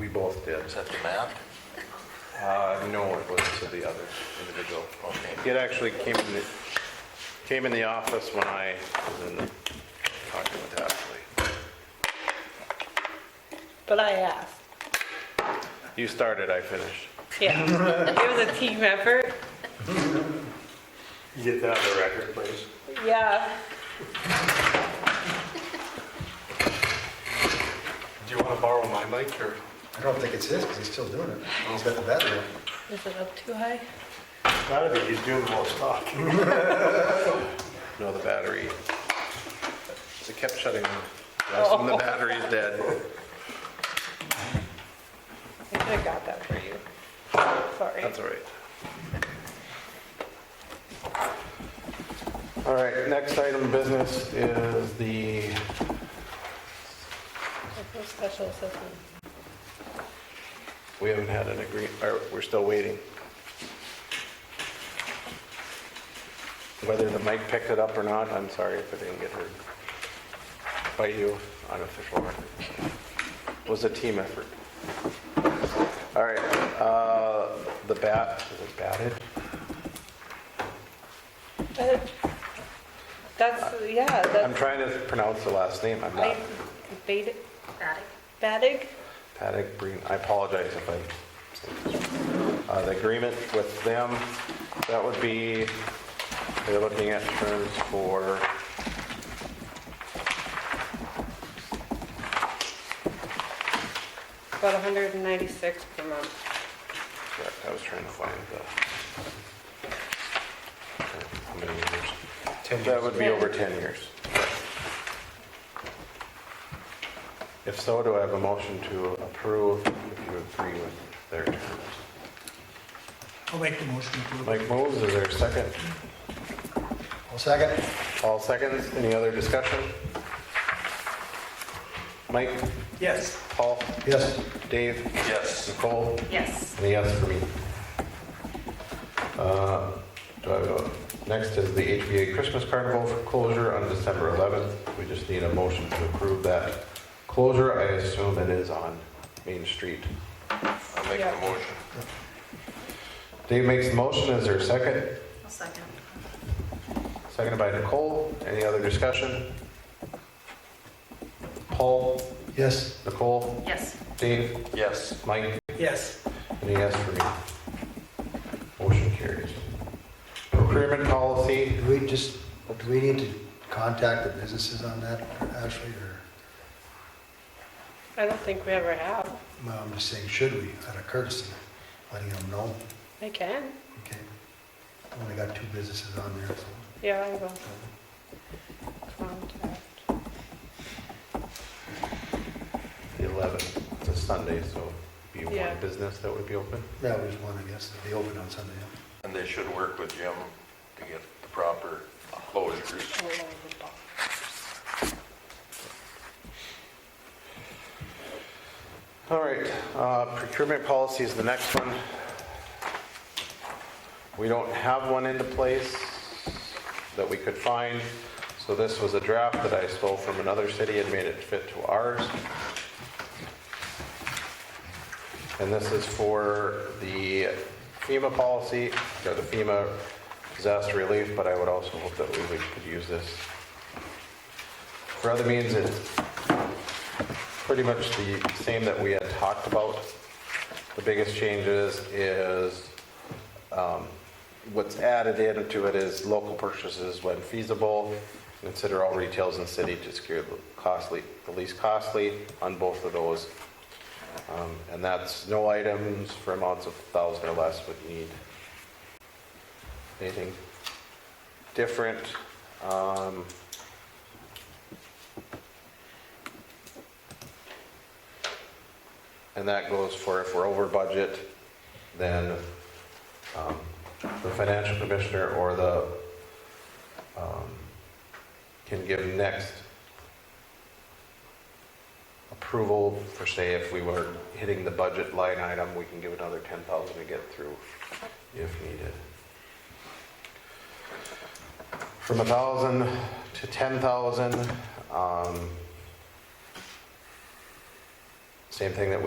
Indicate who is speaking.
Speaker 1: We both did.
Speaker 2: Is that the map?
Speaker 1: Uh, No, it was to the other individual.
Speaker 2: Okay.
Speaker 1: It actually came in, the- came in the office when I was in the, talking with Ashley.
Speaker 3: But I asked.
Speaker 1: You started, I finished.
Speaker 3: Yeah, it was a team effort.
Speaker 4: You Get that on the record, please.
Speaker 3: Yeah,
Speaker 4: Do you want to borrow my mic or?
Speaker 5: I don't think it's his, because he's still doing it. He's got the battery. on.
Speaker 3: is it up too high?
Speaker 4: Gotta be, he's doing most talking.
Speaker 1: No, the battery. It kept shutting off. That's when the battery's dead.
Speaker 3: I could have got that for you. Sorry.
Speaker 1: That's all right. All right, next item of business is the
Speaker 3: There's no Special assessment.
Speaker 1: We haven't had an agree, or we're still waiting. Whether the mic picked it up or not, I'm sorry if it didn't get heard by you on official record. It was a team effort. All right, uh, the bat, is it batted?
Speaker 3: Uh, That's, yeah,
Speaker 1: I'm
Speaker 3: that's,
Speaker 1: trying to pronounce the last name, I'm
Speaker 3: I,
Speaker 1: not.
Speaker 3: Badig? Badig?
Speaker 1: Paddock Green, I apologize if I, uh, the agreement with them, that would be, they're looking at terms for,
Speaker 3: About 196 per month.
Speaker 1: correct, I was trying to find the, how many years?
Speaker 5: 10
Speaker 1: That would be
Speaker 3: Yeah.
Speaker 1: over 10 years. If so, do I have a motion to approve if you agree with their terms?
Speaker 6: I'll make the motion to approve.
Speaker 1: Mike moves, is there a second?
Speaker 5: Well, second,
Speaker 1: All seconds, any other discussion? Mike,
Speaker 6: Yes.
Speaker 1: Paul,
Speaker 5: yes.
Speaker 1: Dave,
Speaker 2: Yes.
Speaker 1: Nicole,
Speaker 3: Yes.
Speaker 1: and a yes for me. Uh, Do I vote? Next is the HBA Christmas Carnival closure on December 11th. We just need a motion to approve that closure. I assume it is on Main Street.
Speaker 2: I'll make
Speaker 3: Yeah.
Speaker 2: the motion.
Speaker 1: Dave makes the motion, is there a second?
Speaker 7: I'll second.
Speaker 1: Seconded by Nicole, any other discussion? Paul,
Speaker 5: Yes.
Speaker 1: Nicole,
Speaker 7: Yes.
Speaker 1: Dave,
Speaker 2: Yes.
Speaker 1: Mike,
Speaker 6: Yes.
Speaker 1: Any yes for me? Motion carries. Procurement policy,
Speaker 5: Do we just, do we need to contact the businesses on that, Ashley, or,
Speaker 3: I don't think we ever have.
Speaker 5: well, I'm just saying, should we, out of courtesy, letting them know?
Speaker 3: I can.
Speaker 5: Okay. I Only got two businesses on there, so.
Speaker 3: Yeah, I will. Contact.
Speaker 1: the 11th, it's a Sunday, so be
Speaker 3: Yeah.
Speaker 1: one business that would be open.
Speaker 5: Yeah, there's one, I guess, that'd be open on Sunday. yeah.
Speaker 2: And they should work with Jim to get the proper closures.
Speaker 3: Hold on, hold on.
Speaker 1: All right, uh, procurement policy is the next one. We don't have one into place that we could find, so this was a draft that I stole from another city and made it fit to ours. And this is for the FEMA policy, or the FEMA disaster relief, but I would also hope that we would- could use this for other means. It's pretty much the same that we had talked about. The biggest changes is, um, what's added into it is local purchases when feasible. Consider all retails in city to secure the costly, the least costly on both of those. Um, And that's no items for amounts of 1,000 or less would need anything different. Um, And that goes for if we're over budget, then um, the financial commissioner or the, um, can give next approval for say if we were hitting the budget line item, we can give another 10,000 to get through if needed. From 1,000 to 10,000, um, same thing that we.